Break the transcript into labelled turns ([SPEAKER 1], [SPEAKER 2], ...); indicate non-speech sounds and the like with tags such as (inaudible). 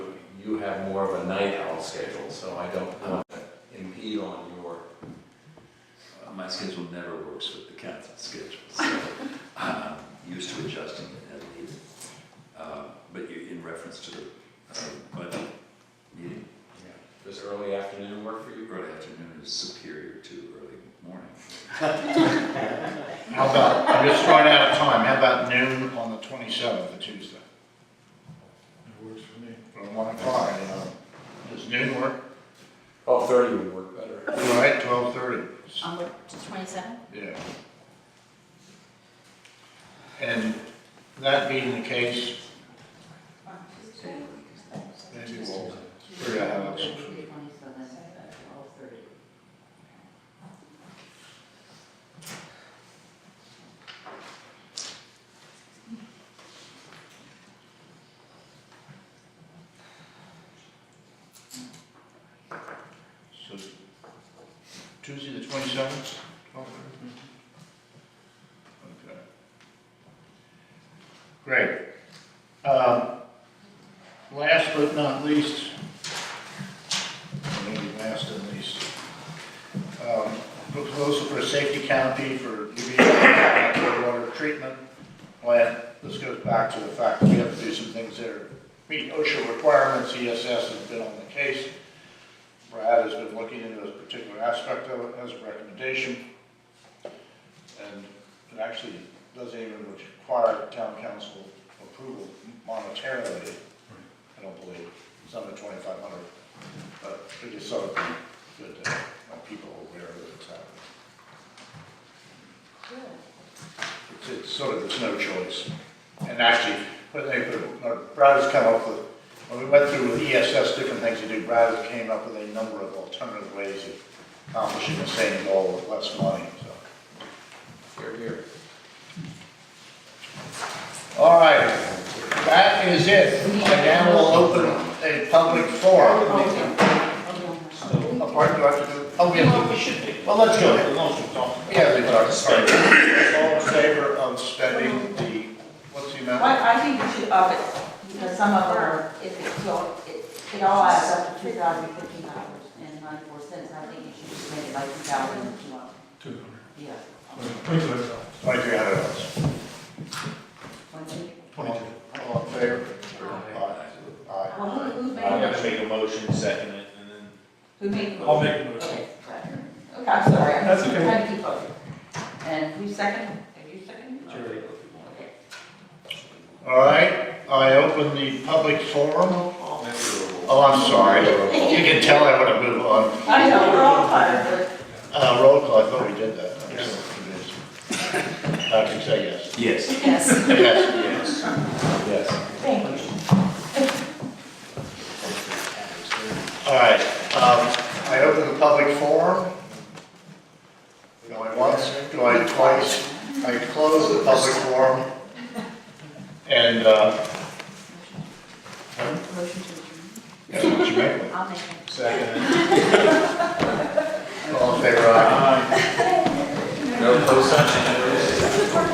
[SPEAKER 1] you have more of a night owl schedule, so I don't want to impede on your,
[SPEAKER 2] Uh, My schedule never works with the council schedule, so I'm used to adjusting it as needed. Uh, But you, in reference to the um, budget meeting,
[SPEAKER 1] does early afternoon work for you?
[SPEAKER 2] early afternoon is superior to early morning.
[SPEAKER 3] How about, I'm just running out of time, how about noon on the twenty-seventh, the Tuesday?
[SPEAKER 4] It works for me.
[SPEAKER 3] From one o'clock, you know, does noon work?
[SPEAKER 1] Oh, thirty would work better.
[SPEAKER 3] All right, twelve thirty,
[SPEAKER 5] On the twenty-seventh?
[SPEAKER 3] yeah. And that being the case, maybe we'll figure out how it's. So Tuesday, the twenty-seventh, twelve thirty? Okay. Great. Um, Last but not least, or maybe last and least, um, proposal for a safety canopy for UV water treatment plant. This goes back to the fact that we have to do some things that are meet OSHA requirements, ESS has been on the case. Brad has been looking into this particular aspect of it as a recommendation. And it actually doesn't even require town council approval monetarily, I don't believe. It's under twenty-five hundred, but it is sort of good that uh, people are aware that it's happening. It's, it's sort of, there's no choice. And actually, when they, put uh, Brad has come up with, when we went through with ESS, different things to do, Brad has came up with a number of alternative ways of accomplishing the same goal with less money, so.
[SPEAKER 1] Here, here.
[SPEAKER 3] All right, that is it. I now will open a public forum. Oh, pardon, do I have to do? Oh, yeah, we should do. Well, let's go. Yeah, we are, sorry. All in favor of spending the, what's the
[SPEAKER 6] Well,
[SPEAKER 3] amount?
[SPEAKER 6] I think you should up it, because some of them are, it, it, all- it- it all adds up to two thousand fifteen dollars and ninety-four cents, I think you should just make it like two thousand and two hundred,
[SPEAKER 4] Two
[SPEAKER 6] yeah.
[SPEAKER 4] hundred. Twenty-two,
[SPEAKER 3] Twenty-three hundred dollars.
[SPEAKER 6] Twenty-
[SPEAKER 4] twenty-two.
[SPEAKER 3] All in favor? Aye. Aye.
[SPEAKER 6] Well, who, who made?
[SPEAKER 7] I'm
[SPEAKER 6] it?
[SPEAKER 7] gonna make a motion, second it, and then
[SPEAKER 6] Who made? it?
[SPEAKER 4] I'll make a motion.
[SPEAKER 6] Okay, right. Okay, I'm sorry, I'm
[SPEAKER 4] That's
[SPEAKER 6] just
[SPEAKER 4] okay.
[SPEAKER 6] trying to keep up. And who second? Have you seconded?
[SPEAKER 4] Jerry.
[SPEAKER 6] Okay.
[SPEAKER 3] All right, I open the public forum. Oh, I'm sorry. You can tell I want to move on.
[SPEAKER 6] I know, we're all tired,
[SPEAKER 3] Uh, roll call, I thought we did that. I'm just confused. Patrick, say yes.
[SPEAKER 2] Yes.
[SPEAKER 5] Yes.
[SPEAKER 3] Yes.
[SPEAKER 1] Yes.
[SPEAKER 6] but (laughs) thank you.
[SPEAKER 3] All right, um, I open the public forum. Going once, going twice, I close the public forum. And, uh,
[SPEAKER 5] Motion to adjourn.
[SPEAKER 3] yeah, what you make
[SPEAKER 5] I'll make it.
[SPEAKER 3] Second. All in favor, aye?
[SPEAKER 1] No post